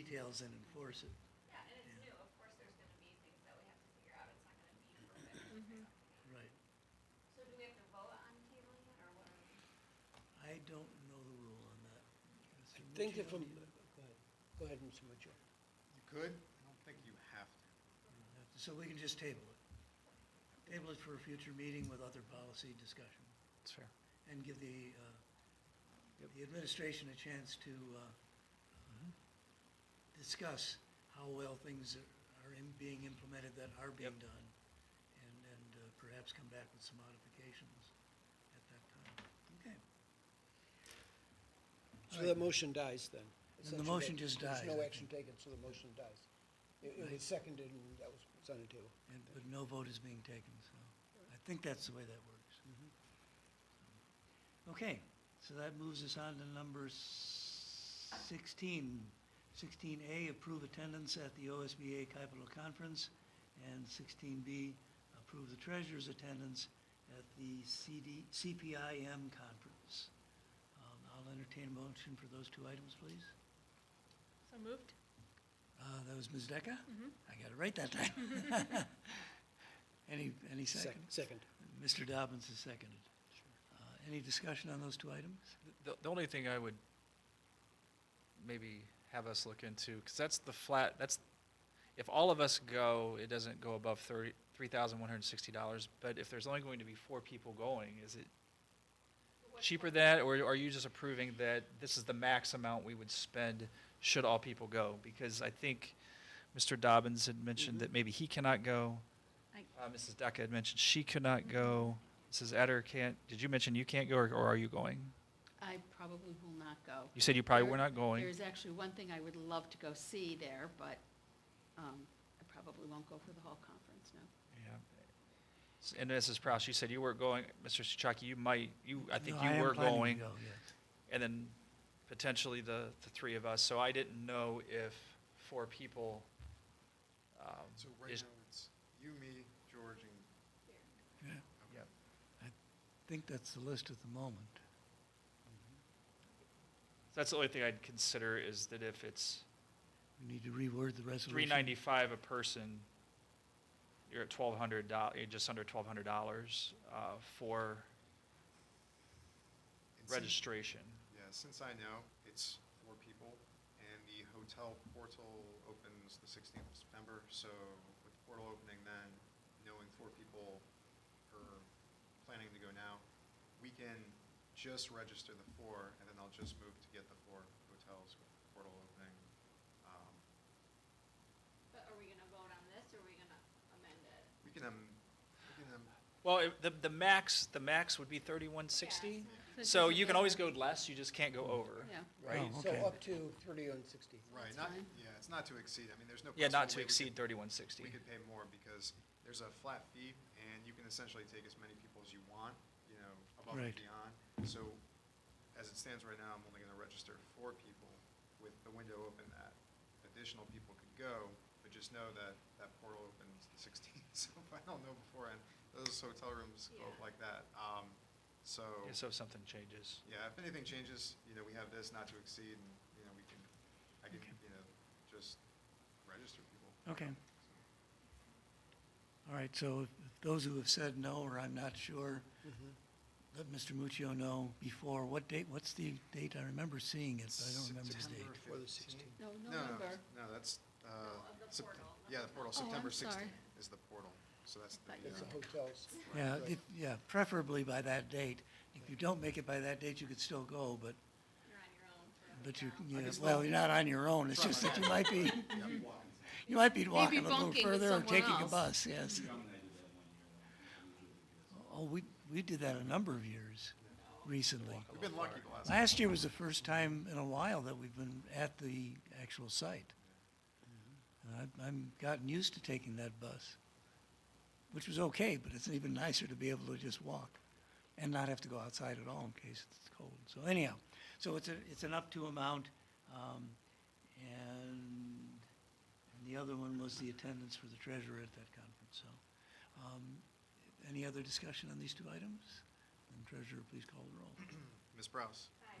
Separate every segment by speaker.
Speaker 1: details and enforce it.
Speaker 2: Yeah, and it's
Speaker 1: Yeah.
Speaker 2: new, of course, there's gonna be things that we have to figure out, it's not gonna be perfect.
Speaker 1: Right.
Speaker 2: So do we have to vote on tabling it, or what are we?
Speaker 1: I don't know the rule on that.
Speaker 3: I
Speaker 1: Mr.
Speaker 3: think if,
Speaker 1: Muccio,
Speaker 3: I'm-
Speaker 1: do you know?
Speaker 3: go ahead, go ahead, Mr. Mitchell.
Speaker 4: You could, I don't think you have to.
Speaker 1: So we can just table it. Table it for a future meeting with other policy discussion
Speaker 5: That's fair.
Speaker 1: and give the, uh, the administration a chance to uh,
Speaker 3: Mm-hmm.
Speaker 1: discuss how well things are- are in- being implemented that are being
Speaker 5: Yep.
Speaker 1: done and, and uh, perhaps come back with some modifications at that time. Okay.
Speaker 3: So that motion dies then?
Speaker 1: Then the motion just dies,
Speaker 3: There's no
Speaker 1: I
Speaker 3: action taken, so the motion dies. It it
Speaker 1: Right.
Speaker 3: was seconded and that was, it's on the table.
Speaker 1: And, but no vote is being taken, so I think that's the way that works. Okay, so that moves us on to number s- 16. 16A, approve attendance at the OSBA Capital Conference, and 16B, approve the treasurer's attendance at the CD, CPIM Conference. Um, I'll entertain a motion for those two items, please.
Speaker 6: So moved?
Speaker 1: Uh, That was Ms. Decker? I got it right that time. Any, any second?
Speaker 3: Sec- Second.
Speaker 1: Mr. Dobbins has seconded. Uh, Any discussion on those two items?
Speaker 5: The, the only thing I would maybe have us look into, because that's the flat, that's, if all of us go, it doesn't go above thirty, three thousand one hundred and sixty dollars, but if there's only going to be four people going, is it
Speaker 2: what's
Speaker 5: cheaper
Speaker 2: what-
Speaker 5: than, or are you just approving that this is the max amount we would spend should all people go? Because I think Mr. Dobbins had mentioned that maybe he cannot go.
Speaker 6: I-
Speaker 5: Uh, Mrs. Decker had mentioned she could not go. Mrs. Etter can't, did you mention you can't go, or or are you going?
Speaker 7: I probably will not go.
Speaker 5: You said you probably
Speaker 7: There-
Speaker 5: were not going.
Speaker 7: There's actually one thing I would love to go see there, but um, I probably won't go for the whole conference, no.
Speaker 5: Yeah. S- And Mrs. Prowse, you said you were going, Mr. Souchaki, you might, you, I think
Speaker 1: No, am
Speaker 5: you were
Speaker 1: planning to
Speaker 5: going.
Speaker 1: go, yes.
Speaker 5: And then potentially the, the three of us. So I didn't know if four people, um,
Speaker 4: So right
Speaker 5: is-
Speaker 4: now, it's you, me, George, and. um,
Speaker 1: Yeah,
Speaker 5: Yep.
Speaker 1: I think that's the list at the moment.
Speaker 5: So That's the only thing I'd consider is that if it's
Speaker 1: We need to reword the resolution.
Speaker 5: three ninety-five a person, you're at twelve hundred dollars, you're just under twelve hundred dollars, uh, for
Speaker 4: and since-
Speaker 5: registration.
Speaker 4: Yeah, since I know, it's four people, and the hotel portal opens the sixteenth of September, so with the portal opening then, knowing four people are planning to go now, we can just register the four, and then I'll just move to get the four hotels with the portal opening. Um,
Speaker 2: But are we gonna vote on this, or are we gonna amend it?
Speaker 4: We can, um, we can, um,
Speaker 5: Well, it- the, the max, the max would be thirty-one sixty.
Speaker 6: Yeah.
Speaker 5: So you can always go less, you just can't go over.
Speaker 7: Yeah.
Speaker 5: Right?
Speaker 1: Oh,
Speaker 3: So
Speaker 1: okay.
Speaker 3: up to thirty and sixty.
Speaker 4: right,
Speaker 7: That's
Speaker 4: not,
Speaker 7: fine.
Speaker 4: yeah, it's not to exceed, I mean, there's no.
Speaker 5: Yeah, not
Speaker 4: possible
Speaker 5: to
Speaker 4: way we
Speaker 5: exceed
Speaker 4: could-
Speaker 5: thirty-one sixty.
Speaker 4: We could pay more because there's a flat fee and you can essentially take as many people as you want, you know, above and
Speaker 1: Right.
Speaker 4: beyond. So as it stands right now, I'm only gonna register four people with the window open that additional people could go, but just know that that portal opens the 16th. So if I don't know beforehand, those hotel rooms go up
Speaker 2: Yeah.
Speaker 4: like that. Um, So,
Speaker 5: So if something changes.
Speaker 4: yeah, if anything changes, you know, we have this not to exceed and, you know, we can, I can, you know, just register people.
Speaker 1: Okay. All right, so if if those who have said no, or I'm not sure, let Mr. Muccio know before, what date, what's the date? I remember seeing it, but I don't remember the
Speaker 4: September
Speaker 1: date.
Speaker 3: Before the
Speaker 4: 15th.
Speaker 3: 16th.
Speaker 7: No,
Speaker 4: No, no,
Speaker 7: November.
Speaker 4: No, that's, uh.
Speaker 2: No, of the
Speaker 4: Sept-
Speaker 2: portal, not
Speaker 4: Yeah,
Speaker 2: the
Speaker 4: the
Speaker 7: hotel. Oh,
Speaker 4: portal, September
Speaker 7: I'm sorry.
Speaker 4: sixteenth is the portal, so that's the.
Speaker 7: I thought you
Speaker 3: That's the
Speaker 4: uh,
Speaker 3: hotels.
Speaker 1: Yeah,
Speaker 3: Right.
Speaker 1: if- yeah, preferably by that date. If you don't make it by that date, you could still go, but,
Speaker 2: You're on your own for a
Speaker 1: but you,
Speaker 2: while.
Speaker 1: yeah,
Speaker 4: guess
Speaker 1: well,
Speaker 4: not.
Speaker 1: you're not on your own, it's just that you might be,
Speaker 4: yeah, block.
Speaker 1: you might be walking a little
Speaker 7: bunking with
Speaker 1: further or
Speaker 7: someone
Speaker 1: taking a
Speaker 7: else.
Speaker 1: bus, yes.
Speaker 8: John and I did that one year, and we usually do this.
Speaker 1: Oh, we, we did that a number of years recently.
Speaker 4: We've been lucky the last.
Speaker 1: Last year was the first time in a while that we've been at the actual site. And I've, I've gotten used to taking that bus, which was okay, but it's even nicer to be able to just walk and not have to go outside at all in case it's cold. So anyhow, so it's a, it's an up to amount. Um, and, and the other one was the attendance for the treasurer at that conference, so. Um, any other discussion on these two items? And treasurer, please call the roll.
Speaker 4: Ms. Browse,
Speaker 2: Hi.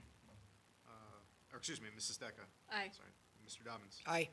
Speaker 4: uh, or excuse me, Mrs. Decker.
Speaker 6: Aye.
Speaker 4: Sorry,
Speaker 9: Mr. Dobbins.
Speaker 4: Aye.